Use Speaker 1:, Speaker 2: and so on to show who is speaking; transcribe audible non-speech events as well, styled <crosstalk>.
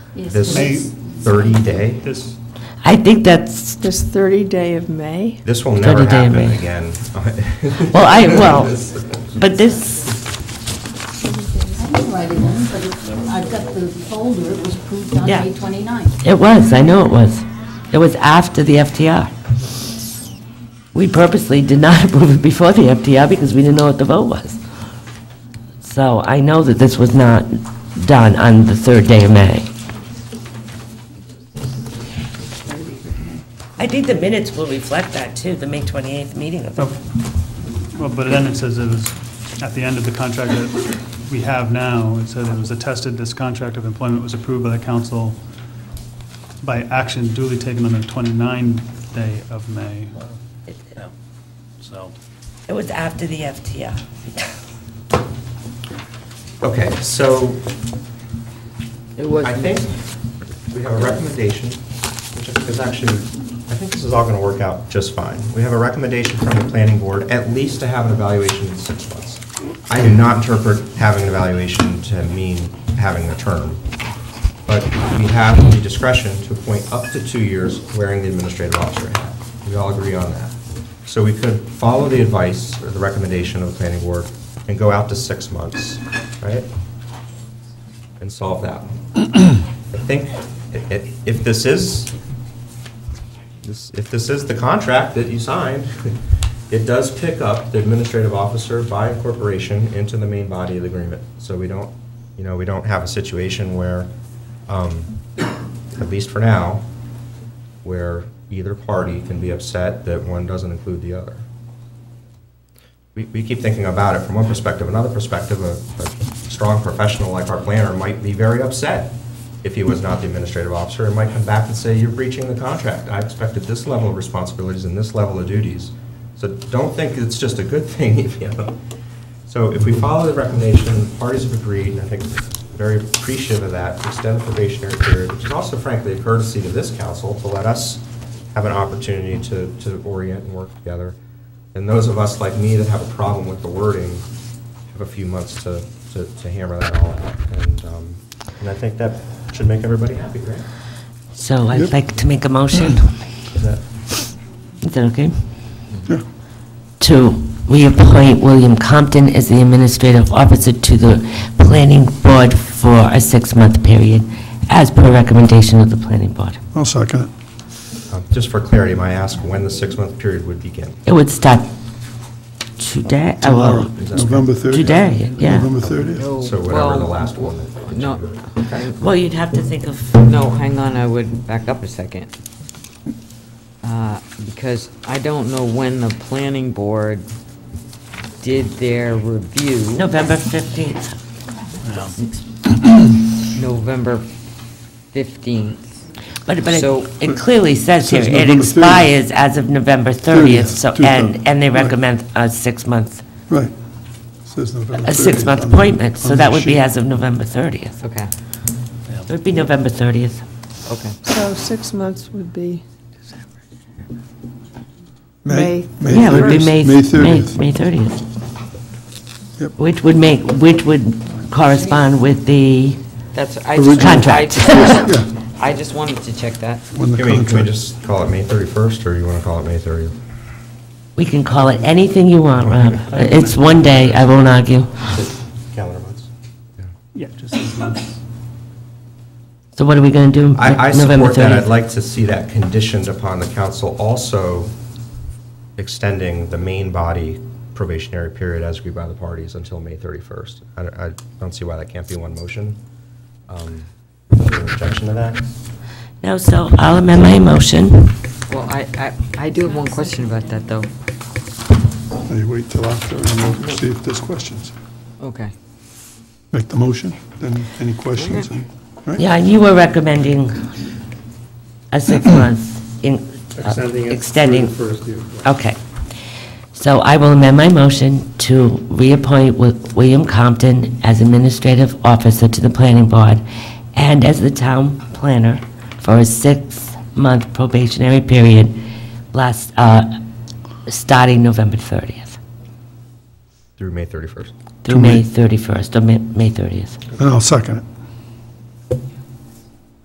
Speaker 1: Yes,
Speaker 2: This
Speaker 1: it
Speaker 3: is.
Speaker 2: 30-day?
Speaker 3: This,
Speaker 4: I think that's,
Speaker 1: This 30 day of May?
Speaker 2: This will never
Speaker 4: 30-day
Speaker 2: happen
Speaker 4: ban.
Speaker 2: again. <laughs>
Speaker 4: well, I, well, but this,
Speaker 5: I didn't write it in, but it- I've got the folder, it was approved on
Speaker 4: Yeah.
Speaker 5: May 29th.
Speaker 4: it was, I know it was. It was after the FTR. We purposely did not <laughs> approve it before the FTR because we didn't know what the vote was. So I know that this was not done on the third day of May. I think the minutes will reflect that too, the May 28th meeting of
Speaker 3: oh, well, but then it says it was, at the end of the contract that we have now, it said it was attested, this contract of employment was approved by the council by action duly taken on the 29th day of May.
Speaker 6: Yeah. So,
Speaker 4: It was after the FTR.
Speaker 2: Okay, so I think we have a recommendation, which is actually, I think this is all going to work out just fine. We have a recommendation from the planning board, at least to have an evaluation in six months. I do not interpret having an evaluation to mean having a term, but we have the discretion to appoint up to two years wearing the administrative officer hat. We all agree on that. So we could follow the advice or the recommendation of the planning board and go out to six months, right? And solve that one. I think i- i- if this is, this- if this is the contract that you signed, <laughs> it does pick up the administrative officer by incorporation into the main body of the agreement. So we don't, you know, we don't have a situation where, um, at least for now, where either party can be upset that one doesn't include the other. We, we keep thinking about it from one perspective, another perspective, a, a strong professional like our planner might be very upset if he was not the administrative officer, and might come back and say, you're breaching the contract. I expected this level of responsibilities and this level of duties. So don't think it's just a good thing, <laughs> if you know. So if we follow the recommendation, parties have agreed, and I think very appreciative of that, to extend the probationary period, which is also frankly a courtesy to this council to let us have an opportunity to, to orient and work together. And those of us like me that have a problem with the wording have a few months to, to to hammer that all out. And, um, and I think that should make everybody happy, right?
Speaker 4: So I'd like to make a motion.
Speaker 2: Is that,
Speaker 4: Is that okay? To reappoint William Compton as the administrative officer to the planning board for a six-month period, as per recommendation of the planning board.
Speaker 7: I'll second it.
Speaker 2: um, just for clarity, may I ask when the six-month period would begin?
Speaker 4: It would start today, oh,
Speaker 7: Tomorrow,
Speaker 4: well,
Speaker 7: November 30th.
Speaker 4: Today, yeah.
Speaker 7: November 30th.
Speaker 2: So whatever the last one. that-
Speaker 8: No,
Speaker 4: well, you'd have to think of,
Speaker 8: no, hang on, I would back up a second. Uh, Because I don't know when the planning board did their review,
Speaker 4: November 15th.
Speaker 8: November 15th.
Speaker 4: But, but
Speaker 8: So-
Speaker 4: it- it clearly says here,
Speaker 7: Says
Speaker 4: it
Speaker 7: November 30th.
Speaker 4: expires as of November 30th, so,
Speaker 7: 30th,
Speaker 4: and, and they
Speaker 7: 2000, right.
Speaker 4: recommend a six-month,
Speaker 7: Right. Says November 30th.
Speaker 4: a six-month
Speaker 7: on the-
Speaker 4: appointment, so
Speaker 7: on
Speaker 4: that
Speaker 7: the
Speaker 4: would be
Speaker 7: sheet.
Speaker 4: as of November 30th.
Speaker 8: Okay,
Speaker 4: It would be November 30th.
Speaker 8: okay.
Speaker 1: So six months would be May.
Speaker 7: May
Speaker 4: Yeah, it would be
Speaker 7: 30th.
Speaker 4: May,
Speaker 7: May
Speaker 4: May
Speaker 7: 30th.
Speaker 4: May 30th.
Speaker 7: Yep.
Speaker 4: Which would make, which would correspond with the,
Speaker 8: That's, I just.
Speaker 4: Contract.
Speaker 8: I just-
Speaker 4: <laughs>
Speaker 7: Yeah,
Speaker 8: I just wanted to check that.
Speaker 7: when the
Speaker 2: Can we, can we
Speaker 7: contract-
Speaker 2: just call it May 31st, or you want to call it May 30th?
Speaker 4: we can call it anything you want, Rob. It's one day, I won't argue.
Speaker 2: Calendar months.
Speaker 3: Yeah, just six months.
Speaker 4: So what are we going to do?
Speaker 2: I, I
Speaker 4: November
Speaker 2: support that. I'd
Speaker 4: 30th?
Speaker 2: like to see that conditioned upon the council also extending the main body probationary period as agreed by the parties until May 31st. I don't, I don't see why that can't be one motion. Um, Is there an objection to that?
Speaker 4: No, so I'll amend my motion.
Speaker 8: Well, I, I, I do have one question about that, though.
Speaker 7: They wait till after, and we'll see if there's questions.
Speaker 8: Okay.
Speaker 7: Make the motion, then any questions, and- right?
Speaker 4: Yeah, and you were recommending a six-month in, uh, extending. Okay. So I will amend my motion to reappoint Wi- William Compton as administrative officer to the planning board and as the town planner for a six-month probationary period last, uh, starting November 30th
Speaker 2: Through May 31st.
Speaker 4: through May 31st, or Ma- May 30th.
Speaker 7: And I'll second it.